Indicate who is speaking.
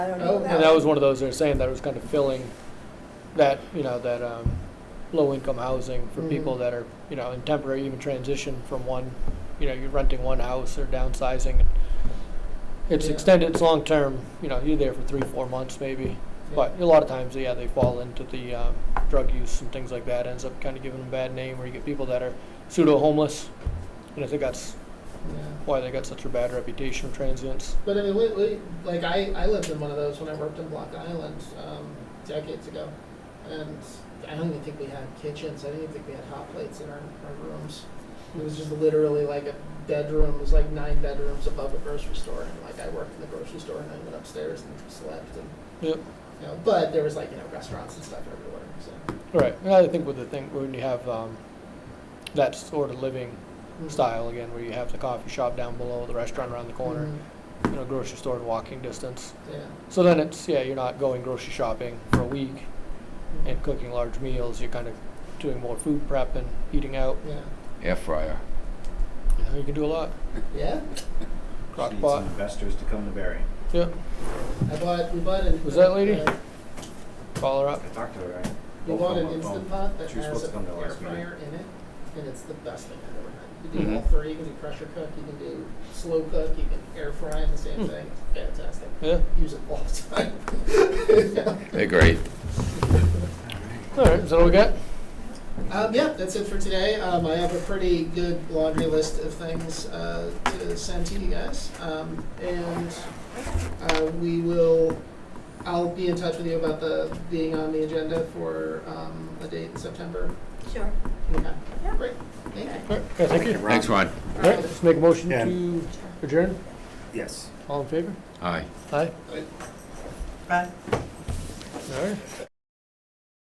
Speaker 1: I don't know.
Speaker 2: Oh,
Speaker 3: And that was one of those that were saying that was kind of filling that, you know, that um, low-income housing for
Speaker 2: Mhm.
Speaker 3: people that are, you know, in temporary, even transition from one, you know, you're renting one house or downsizing. It's
Speaker 2: Yeah.
Speaker 3: extended, it's long-term, you know, you're there for three, four months maybe. But a lot of times, yeah, they fall into the um, drug use and things like that, ends up kind of giving them a bad name, where you get people that are pseudo-homeless. And I think that's
Speaker 2: Yeah.
Speaker 3: why they got such a bad reputation of transients.
Speaker 2: But I mean, we, we, like I, I lived in one of those when I worked in Block Island um, decades ago, and I don't even think we had kitchens. I didn't even think we had hot plates in our, our rooms. It was just literally like a bedroom. It was like nine bedrooms above a grocery store, and like I worked in the grocery store, and I went upstairs and slept, and
Speaker 3: Yep.
Speaker 2: you know. But there was like you know restaurants and stuff everywhere. So
Speaker 3: Right. And I think with the thing when you have um, that sort of living
Speaker 2: Mm-hmm.
Speaker 3: style again, where you have the coffee shop down below, the restaurant around the corner,
Speaker 2: Mhm.
Speaker 3: you know, grocery store in walking distance.
Speaker 2: Mm-hmm. Yeah.
Speaker 3: So then it's yeah, you're not going grocery shopping for a week and cooking large meals. You're kind of doing more food prep and eating out.
Speaker 2: Yeah.
Speaker 4: Air fryer.
Speaker 3: You, know, you can do a lot.
Speaker 2: Yeah.
Speaker 3: Crock
Speaker 5: She needs
Speaker 3: pot.
Speaker 5: some investors to come to Barry.
Speaker 3: Yeah.
Speaker 2: I bought. We bought an.
Speaker 3: Was that lady?
Speaker 2: uh,
Speaker 3: Call her
Speaker 5: I
Speaker 3: up.
Speaker 5: talked to her, right?
Speaker 2: We
Speaker 5: Both
Speaker 2: bought
Speaker 5: on
Speaker 2: an
Speaker 5: my
Speaker 2: Instant
Speaker 5: phone.
Speaker 2: Pot that
Speaker 5: She was
Speaker 2: has
Speaker 5: supposed to come
Speaker 2: an
Speaker 5: to
Speaker 2: air
Speaker 5: last Mm-hmm. night.
Speaker 2: fryer in it, and it's the best thing I've ever had. You do
Speaker 3: Mhm.
Speaker 2: all three, you can do pressure cook, you can do slow cook, you can air fry the same
Speaker 3: Hmm.
Speaker 2: thing. It's fantastic.
Speaker 3: Yeah.
Speaker 2: Use it all the time.
Speaker 4: They're great.
Speaker 3: All right. Is that all we got?
Speaker 2: Um, yeah, that's it for today. Um, I have a pretty good laundry list of things uh, to send to you guys, um, and uh, we will. I'll be in touch with you about the being on the agenda for um, a date in September.
Speaker 1: Sure.
Speaker 2: Okay, great. Thank you.
Speaker 3: All right. Yeah, thank you.
Speaker 4: Thanks, Ron.
Speaker 3: All right. Let's make a motion
Speaker 5: Yeah.
Speaker 3: to adjourn.
Speaker 5: Yes.
Speaker 3: All in favor?
Speaker 4: Aye.
Speaker 3: Aye.
Speaker 1: Bye.
Speaker 3: All right.